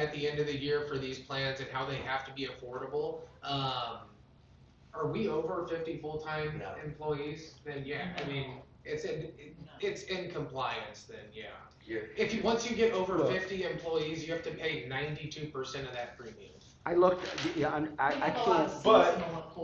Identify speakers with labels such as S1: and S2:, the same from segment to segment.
S1: at the end of the year for these plans and how they have to be affordable, um, are we over fifty full-time
S2: No.
S1: employees? Then yeah, I mean, it's in, it- it's in compliance then, yeah.
S2: You're,
S1: If you, once you get over
S3: Look.
S1: fifty employees, you have to pay ninety-two percent of that premium.
S3: I looked, yeah, I'm- I, I can't,
S4: but-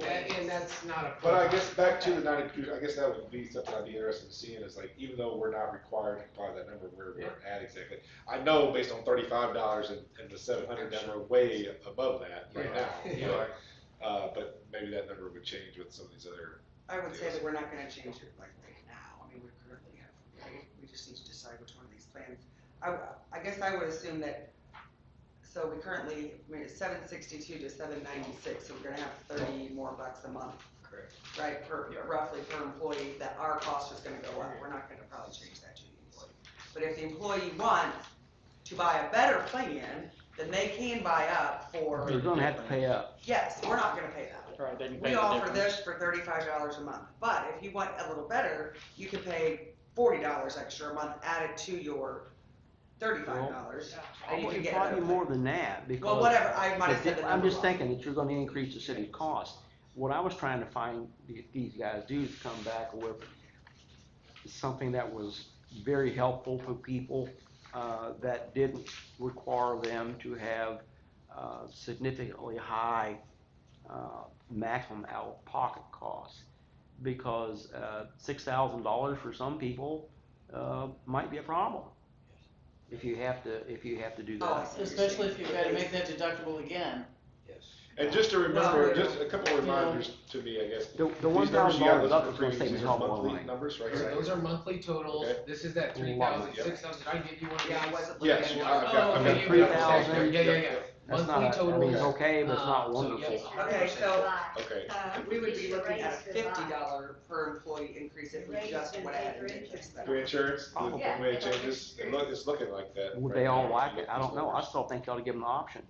S1: And, and that's not a.
S4: But I guess back to the ninety, percent, I guess that would be something I'd be interested in seeing is like, even though we're not required to comply with that number, where
S1: Yeah.
S4: we're at exactly. I know based on thirty-five dollars and, and the seven hundred, that we're way above that right
S1: Yeah.
S4: now.
S1: Yeah.
S4: but, Uh, but maybe that number would change with some of these other,
S2: I would say that we're not gonna change it like right now, I mean, we currently have, right? we just need to decide which one of these plans. I, I guess I would assume that, so we currently, I mean, it's seven sixty-two to seven ninety-six, so we're gonna have thirty more bucks a month.
S1: Correct.
S2: Right, per, roughly per employee, that our cost is gonna go up, we're not gonna probably change that to the employee. But if the employee wants to buy a better plan, then they can buy up for,
S3: you're gonna have to pay up.
S2: yes, we're not gonna pay that.
S5: Right, then you pay
S2: We
S5: the
S2: offer
S5: difference.
S2: this for thirty-five dollars a month, but if you want a little better, you can pay forty dollars extra a month added to your thirty-five dollars. And you can
S3: It's
S2: get
S3: Probably
S2: another
S3: more than that, because.
S2: Well, whatever, I might have said
S3: But
S2: the
S3: I'm
S2: number
S3: just
S2: wrong.
S3: thinking that you're gonna increase the city cost. What I was trying to find the- these guys do is come back with something that was very helpful for people, uh, that didn't require them to have, uh, significantly high, uh, maximum out-of-pocket costs. Because, uh, six thousand dollars for some people, uh, might be a problem. If you have to, if you have to do
S2: Oh, I
S3: that.
S2: see.
S5: Especially if you've gotta make that deductible again.
S4: and just to
S2: Well,
S4: remember, just a couple of
S5: you know.
S4: reminders to me, I guess.
S3: The, the
S4: These
S3: one
S4: numbers
S3: thousand
S4: you got,
S3: dollars
S4: those are
S3: up is gonna
S4: premiums.
S3: save us
S4: These
S3: a
S4: are
S3: lot more
S4: monthly
S3: money.
S4: Numbers right
S1: Those are-
S4: here.
S1: Those are monthly totals,
S4: Okay.
S1: this is that
S3: Love it.
S1: three thousand six hundred, did I give you one of
S2: Yeah, I
S1: these?
S2: wasn't looking
S4: Yes,
S2: at
S4: you-
S2: one.
S4: I've got,
S1: Oh,
S4: I've
S1: okay,
S4: got.
S1: you
S3: Three
S1: got it.
S3: thousand.
S1: Yeah, yeah, yeah.
S3: That's
S1: Monthly
S3: not, I mean, it's
S1: totals.
S3: okay, but it's not
S1: Um, so,
S3: wonderful.
S1: yes.
S2: Okay, so
S4: Okay,
S6: Uh,
S2: we would be
S6: should
S2: looking at a
S6: raise the
S2: fifty
S6: lot.
S2: dollar per employee increase if we
S6: Raise
S2: just
S6: and
S2: went ahead and
S6: raise
S2: did
S6: it.
S2: this. though.
S4: reinsurance, the
S3: Oh.
S6: Yeah.
S4: way it changes, it look, it's looking like that.
S3: Would
S4: right
S3: they all
S4: now.
S3: like it? I don't know. I
S4: Numbers.
S3: still think you ought to give them the option,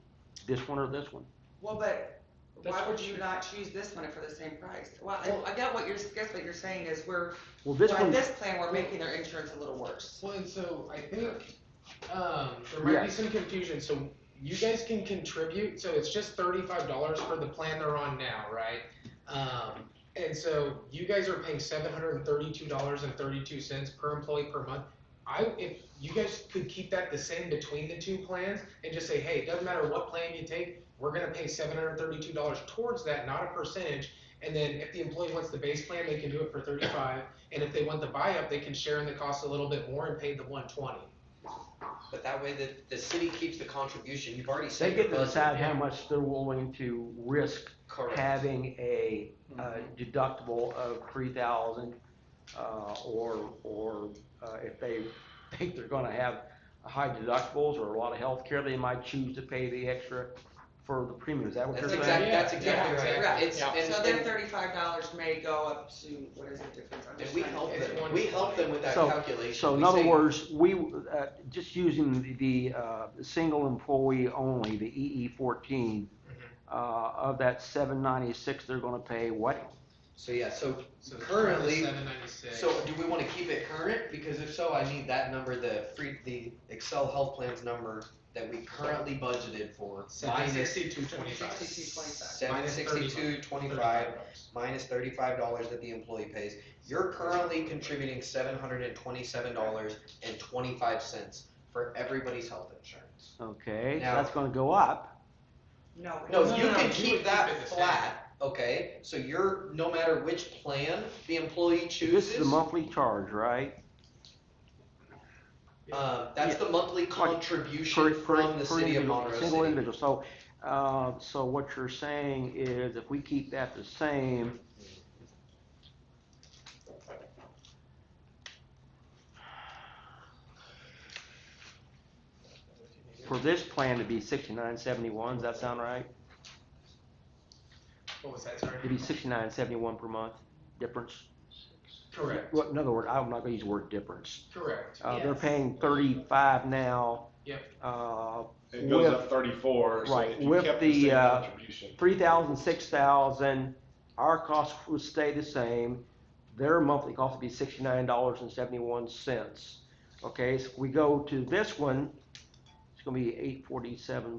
S3: this one or this one.
S2: Well, but why
S5: That's
S2: would
S5: what
S2: you
S5: you-
S2: not choose this one for the same price? Well,
S1: Well-
S2: I, I get what you're, guess what you're saying is we're,
S3: Well, this
S2: by
S3: one,
S2: this plan, we're making their insurance a little worse.
S1: Well, and so I think um, there might be
S3: Yes.
S1: some confusion. So you guys can contribute. So it's just thirty-five dollars for the plan they're on now, right? Um, and so you guys are paying seven hundred and thirty-two dollars and thirty-two cents per employee per month. I if you guys could keep that the same between the two plans and just say, hey, it doesn't matter what plan you take, we're gonna pay seven hundred and thirty-two dollars towards that, not a percentage. And then if the employee wants the base plan, they can do it for thirty-five. And if they want the buy-up, they can share in the cost a little bit more and pay the one twenty.
S7: But that way the, the city keeps the contribution, you've already
S3: they
S7: said.
S3: get to decide how much they're willing to risk
S7: Correct.
S3: having a, uh, deductible of three thousand, uh, or, or, uh, if they think they're gonna have high deductibles or a lot of health care, they might choose to pay the extra for the premium. Is that what
S7: That's
S3: you're saying?
S7: exactly, that's
S1: Yeah,
S7: exactly
S2: yeah,
S7: right. It's,
S5: yeah.
S7: and,
S2: So their
S7: and-
S2: thirty-five dollars may go up to, what is the difference? I'm
S7: and
S2: just
S7: we
S2: trying to
S7: help
S2: get-
S7: them, we help them with that
S3: So-
S7: calculation.
S3: So in
S7: We
S3: other
S7: say,
S3: words, we, uh, just using the, the, uh, single employee only, the EE fourteen,
S7: Mm-hmm.
S3: uh, of that seven ninety-six, they're gonna pay what?
S7: So yeah, so,
S1: So
S7: Currently-
S1: seven ninety-six.
S7: so do we wanna keep it current? Because if so, I need that number, the free, the Excel health plans number that we currently budgeted for.
S1: Seven sixty-two twenty-five.
S2: 62.25.
S7: Seven sixty-two twenty-five, minus thirty-five dollars that the employee pays. You're currently contributing seven hundred and twenty-seven dollars and twenty-five cents for everybody's health insurance.
S3: Okay, so
S7: Now-
S3: that's gonna go up.
S2: No. we
S7: No,
S2: don't.
S7: you
S1: no,
S7: can
S1: you would
S7: keep
S1: keep it
S7: that
S1: the same.
S7: flat, okay? So you're, no matter which plan the employee
S3: This is the
S7: chooses,
S3: monthly charge, right?
S7: uh, that's the monthly
S3: Per-
S7: contribution
S3: per-
S7: from the
S3: per
S7: city of
S3: individual-
S7: Monroe
S3: Single
S7: City.
S3: individual, so, uh, so what you're saying is if we keep that the same. For this plan to be sixty-nine seventy-one, does that sound right?
S1: What was that, sorry?
S3: It'd be sixty-nine seventy-one per month difference.
S1: Correct,
S3: Well, in other words, I'm not gonna use the word difference.
S1: correct.
S3: Uh, they're
S5: Yes.
S3: paying thirty-five now.
S1: Yep.
S3: Uh,
S4: It goes
S3: With-
S4: up thirty-four, so
S3: Right,
S4: if you
S3: with
S4: kept
S3: the,
S4: the same
S3: uh,
S4: contribution.
S3: three thousand, six thousand, our costs would stay the same. Their monthly cost would be sixty-nine dollars and seventy-one cents. Okay, so we go to this one, it's gonna be eight forty-seven